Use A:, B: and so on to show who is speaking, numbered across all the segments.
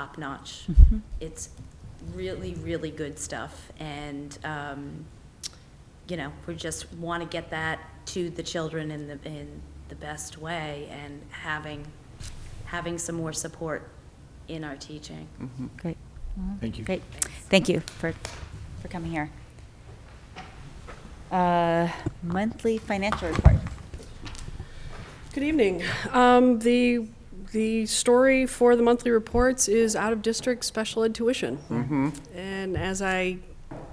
A: top-notch. It's really, really good stuff, and, um, you know, we just want to get that to the children in the, in the best way, and having, having some more support in our teaching.
B: Great.
C: Thank you.
B: Great. Thank you for, for coming here. Uh, Monthly financial report.
D: Good evening. Um, The, the story for the monthly reports is out-of-district special ed tuition. And as I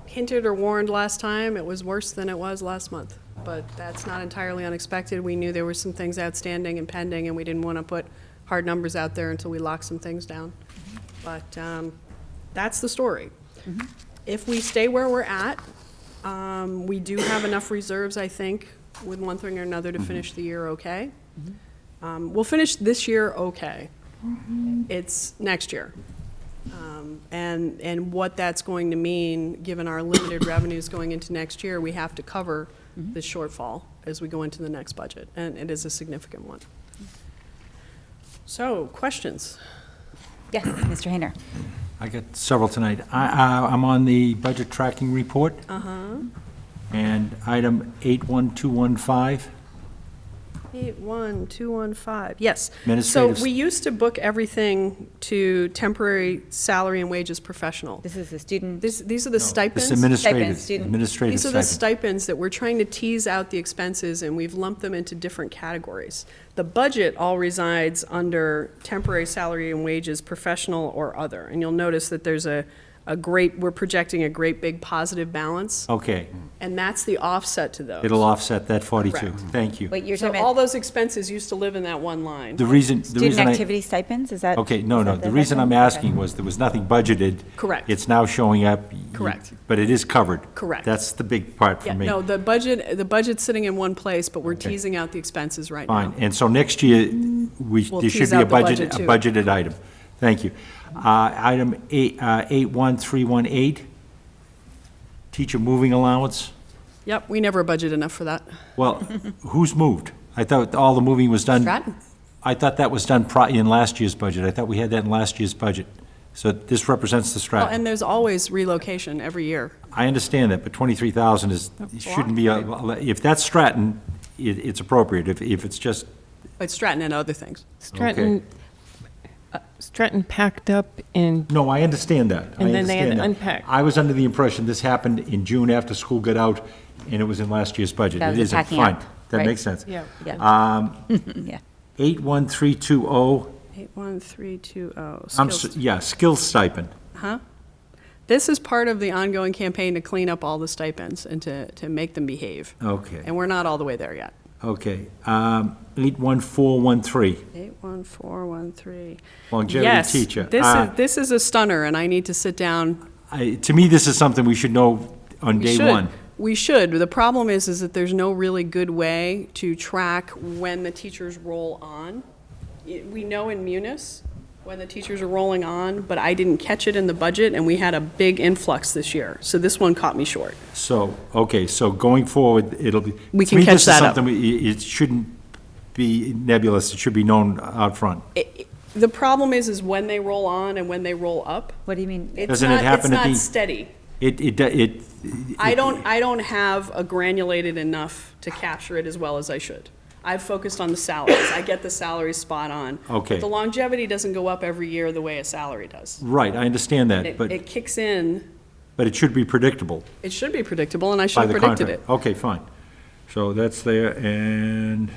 D: hinted or warned last time, it was worse than it was last month. But that's not entirely unexpected. We knew there were some things outstanding and pending, and we didn't want to put hard numbers out there until we locked some things down. But um, that's the story. If we stay where we're at, um, we do have enough reserves, I think, with one thing or another to finish the year okay. Um, We'll finish this year okay. It's next year. Um, And, and what that's going to mean, given our limited revenues going into next year, we have to cover the shortfall as we go into the next budget, and it is a significant one. So, questions?
B: Yes, Mr. Hayner.
C: I got several tonight. I, I- I'm on the budget tracking report. Uh-huh. And item 81215,
D: Eight, one, two, one, five, yes.
C: Administrative-
D: So we used to book everything to temporary salary and wages professional.
B: This is the student.
D: This, these are the
C: it's
D: stipends.
C: administrative,
B: Stipend, student.
C: administrative
D: These are the
C: stipend.
D: stipends that we're trying to tease out the expenses, and we've lumped them into different categories. The budget all resides under temporary salary and wages, professional or other. And you'll notice that there's a, a great, we're projecting a great big positive balance,
C: Okay,
D: and that's the offset to those.
C: Oh. it'll offset that 42.
D: Correct.
C: Thank you.
B: Wait, you're
D: So
B: talking
D: all
B: about
D: those expenses used to live in that one line.
C: The reason, the
B: student
C: reason I.
B: activity stipends, is that?
C: Okay, no,
B: is
C: no,
B: that
C: the reason I'm
B: question?
C: asking
B: Okay.
C: was, there was nothing budgeted.
D: Correct.
C: It's now showing up. You-
D: Correct.
C: But it is covered.
D: Correct.
C: That's the big part for
D: Yeah,
C: me.
D: no, the budget, the budget's sitting in one place, but we're
C: Okay.
D: teasing out the expenses right now.
C: Fine, and so next year, we,
D: We'll
C: there should
D: tease
C: be a
D: out the
C: budget, a
D: budget,
C: budgeted item. Thank you. Uh, Item eight, uh, 81318, teacher moving allowance.
D: Yep, we never budget enough for that.
C: Well, who's moved? I thought all the moving was done.
D: Stratton.
C: I thought that was done pri- in last year's budget. I thought we had that in last year's budget. So this represents the
D: Well,
C: Stratton.
D: And there's always relocation every year.
C: I understand that, but 23,000 is,
D: a
C: shouldn't be, a- if that's Stratton, it, it's appropriate. If, if it's just,
D: But Stratton and other things.
C: Okay.
E: Stratton, uh, Stratton packed up in,
C: No, I understand that. I
E: And then they
C: understand
E: had to
C: that.
E: unpack.
C: I was under the impression this happened in June after school got out, and it was in last year's budget.
B: That was
C: It
B: the
C: isn't.
B: packing
C: Fine.
B: up,
C: That
B: right?
C: makes sense.
E: yeah.
B: Yeah.
C: 81320,
D: 81320,
C: oh, I'm,
D: oh. skills.
C: s- yeah, skills stipend.
D: This is part of the ongoing campaign to clean up all the stipends and to, to make them behave.
C: Okay,
D: And we're not all the way there yet.
C: okay. Um, 81413,
D: 81413.
C: longevity teacher.
D: Yes, this
C: Uh,
D: is, this is a stunner, and I need to sit down.
C: I- To me, this is something we should know on
D: We
C: day
D: should.
C: one.
D: We should. The problem is, is that there's no really good way to track when the teachers roll on. Y- We know in Munis when the teachers are rolling on, but I didn't catch it in the budget, and we had a big influx this year. So this one caught me short.
C: So, okay, so going forward, it'll be.
D: We
C: to
D: can
C: me,
D: catch
C: this is
D: that up.
C: something we- It it shouldn't be nebulous, it should be known out front.
D: it- it- The problem is, is when they roll on and when they roll up.
B: What do you mean?
D: It's
C: Doesn't it
D: not-
C: happen at
D: It's
C: the-
D: not steady.
C: It, it, it.
D: I don't, I don't have a granulated enough to capture it as well as I should. I've focused on the salaries. I get the salaries spot on.
C: Okay.
D: But the longevity doesn't go up every year the way a salary does.
C: Right, I understand that,
D: It
C: but,
D: it kicks in,
C: but it should be predictable
D: it should be predictable, and I should
C: by
D: have
C: the
D: predicted it.
C: contract. Okay, fine. So that's there, and,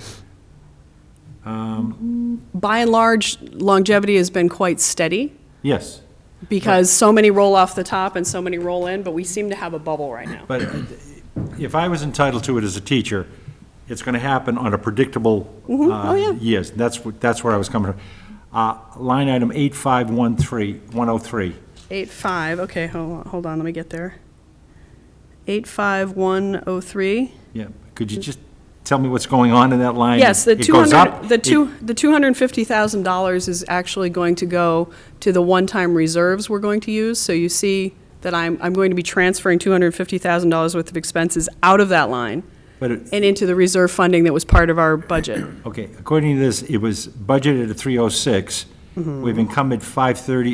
D: By and large, longevity has been quite steady
C: yes,
D: because so many roll off the top and so many roll in, but we seem to have a bubble right now.
C: but if I was entitled to it as a teacher, it's going to happen on a predictable. uh,
D: Oh, yeah.
C: Yes, that's, what- that's where I was coming from. Uh, Line item 8513103. 103.
D: Eight five, okay, hold on, hold on, let me get there. Eight five one oh three.
C: Yeah, could you just tell me what's going on in that line?
D: Yes, the
C: It
D: two
C: goes up,
D: hundred, the
C: it-
D: two, the two hundred and fifty thousand dollars is actually going to go to the one-time reserves we're going to use. So you see that I'm, I'm going to be transferring two hundred and fifty thousand dollars worth of expenses out of that line
C: But it-
D: and into the reserve funding that was part of our budget. Mm-hmm.
C: Okay, according to this, it was budgeted at 306. We've oh income at 530